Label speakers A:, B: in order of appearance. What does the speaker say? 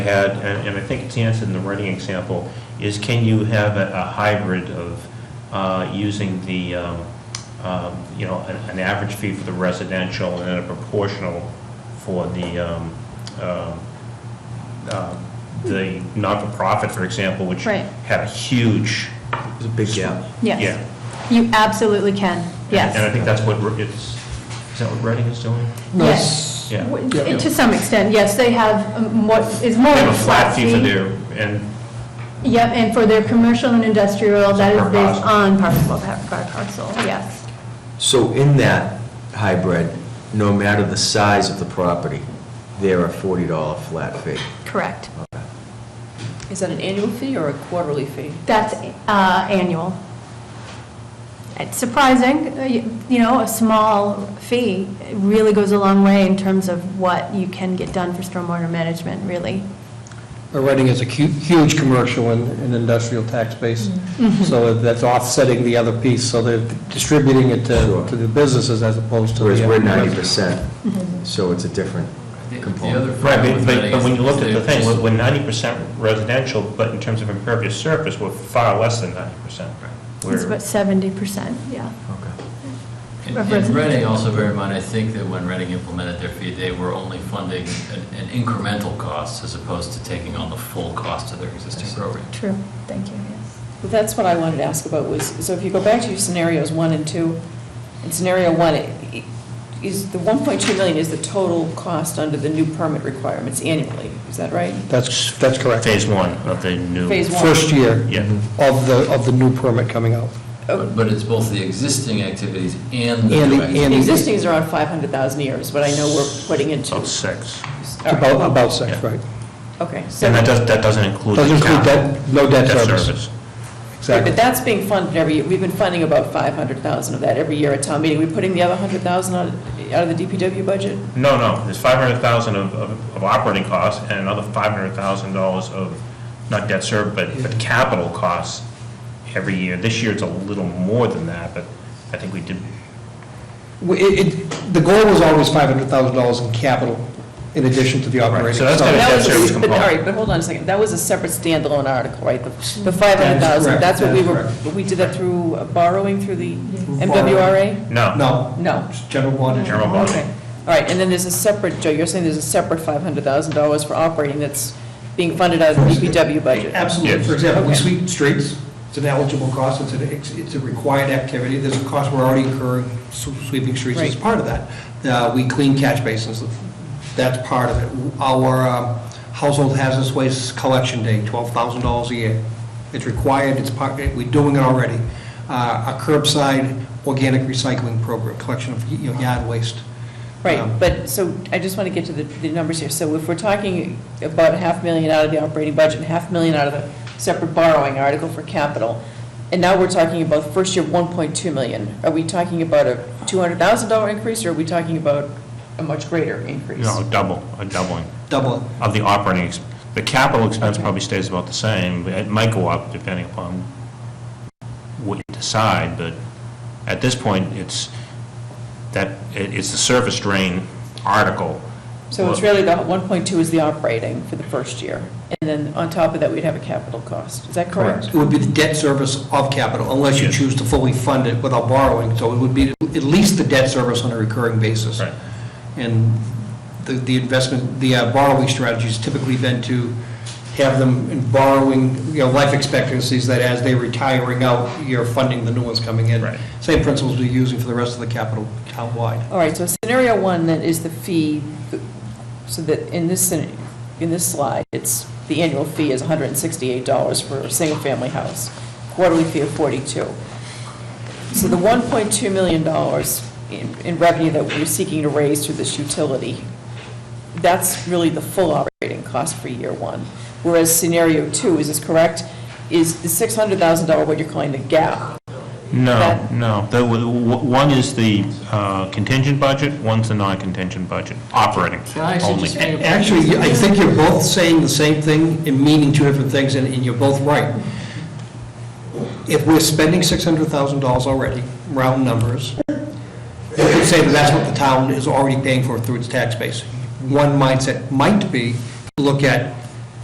A: had, and and I think it's answered in the running example, is can you have a a hybrid of uh, using the, um, um, you know, an an average fee for the residential and then a proportional for the, um, um, uh, the not-for-profit, for example, which
B: Right.
A: had a huge.
C: There's a big gap.
A: Yeah.
B: Yes. You absolutely can,
A: And uh, I
B: yes.
A: think that's what, Re- it's, is that what Reading is doing?
B: Yes.
A: Yeah.
B: W-
C: Yeah.
B: To some extent, yes, they have um, what is more
A: They
B: of
A: have a flat fee for their, and
B: Yep, and for their commercial and industrial, that is
A: Per
B: based
A: parcel.
B: on parcel, by parcel, yes.
C: So in that hybrid, no matter the size of the property, there are $40 flat fee.
B: Correct.
D: Is that an annual fee or a quarterly fee?
B: That's uh, annual. It's surprising, uh, you you know, a small fee really goes a long way in terms of what you can get done for stormwater management, really.
E: But Reading is a hu- huge commercial and and industrial tax base,
D: Mm-hmm.
B: Mm-hmm.
E: so that's offsetting the other piece, so they're distributing it to
C: Sure.
E: to the businesses as opposed to the...
C: Whereas we're
E: individuals.
C: 90%, so it's a different component.
A: Right, but- but, but when you looked at the thing, we're- we're ninety percent residential, but in terms of impervious surface, we're far less than ninety percent.
B: It's about seventy percent, yeah.
C: Okay.
F: And
B: of
F: and
B: residential.
F: Reading, also bear in mind, I think that when Reading implemented their fee, they were only funding an- an incremental cost as opposed to taking on the full cost of their existing program.
B: True, thank you, yes.
D: Well, that's what I wanted to ask about was, so if you go back to your scenarios one and two, in scenario one, it- it- is the 1.2 million is the total cost under the new permit requirements annually, is that right?
E: That's, that's correct.
A: Phase one of the new.
D: Phase one.
E: First year
A: Yeah.
E: of the, of the new permit coming out.
D: Oh.
F: But but it's both the existing activities and the
E: And the-
F: new activities.
E: and
D: The Existing is around 500,000 a year is what I know we're putting into.
A: About six.
D: All right,
E: About, about six,
A: Yeah.
E: right.
D: Okay, so,
A: And that does, that doesn't include. the
E: Doesn't include
A: cap-
E: debt, no debt service.
D: but
E: Exactly.
D: that's being funded every, year. we've been funding about 500,000 of that every year at town meeting. We're putting the other 100,000 out out of the DPW budget?
A: No, no, there's five hundred thousand of, of of operating costs and another five hundred thousand dollars of, not debt service, but, but capital costs every year. This year it's a little more than that, but I think we did,
E: We- It, it, the goal was always $500,000 in capital in addition to the operating.
A: so that's
E: So-
G: Oh,
A: gonna-
D: That
A: debt
D: was a-
A: service
D: but- All
A: component.
D: right, but hold on a second, that was a separate standalone article, right? The the 500,000,
E: correct.
D: that's what we
E: That
D: were,
E: is
D: we did that through uh, borrowing through the MWRA?
A: no.
E: No,
D: No.
E: it's general bond.
A: General bond.
D: Okay, all right, and then there's a separate, Joe, you're saying there's a separate $500,000 for operating that's being funded out of the DPW budget?
G: Absolutely.
A: Yes.
G: For example, we
D: Okay.
G: sweep streets, it's an eligible cost, it's an, it's- it's a required activity, there's a cost we're already incurring sw- sweeping streets as
D: Right.
G: part of that. Uh, We clean catch basins, that's part of it. Our um, household hazardous waste collection day, $12,000 a year. It's required, it's part, we're doing it already. Uh, A curbside organic recycling program, collection of you know, yard waste. Um,
D: Right, but, so, I just want to get to the, the numbers here. So if we're talking about a half million out of the operating budget, and half million out of the separate borrowing article for capital, and now we're talking about first year one point two million, are we talking about a two hundred thousand dollar increase, or are we talking about a much greater increase?
A: No, double, a doubling.
G: Double it.
A: of the operating, ex- the capital expense
D: Okay.
A: probably stays about the same. It might go up depending upon what you decide, but at this point, it's that, it- it's the surface drain article.
D: So it's really the one point two is the operating for the first year, and then on top of that, we'd have a capital cost, is that correct?
G: It would be the debt service of capital, unless you
A: Yes.
G: choose to fully fund it without borrowing. So it would be at least the debt service on a recurring basis.
A: Right.
G: And the the investment, the uh, borrowing strategies typically then to have them in borrowing, you know, life expectancies that as they're retiring out, you're funding the new ones coming in.
A: Right.
G: Same principles we're using for the rest of the capital townwide.
D: All right, so scenario one then is the fee, so that in this, scen- in this slide, it's, the annual fee is $168 for a single-family house, quarterly fee of 42. So the $1.2 million in- in revenue that we're seeking to raise through this utility, that's really the full operating cost for year one. Whereas scenario two, is this correct, is the $600,000 what you're calling the gap?
A: No,
D: That-
A: no. The- w- w- One is the uh, contingent budget, one's the non-contingent budget, operating
F: Can I
A: only.
F: suggest-
G: A- Actually, you- I think you're both saying the same thing and meaning two different things, and and you're both right. If we're spending $600,000 already, round numbers, you could say that that's what the town is already paying for through its tax base. One mindset might be, look at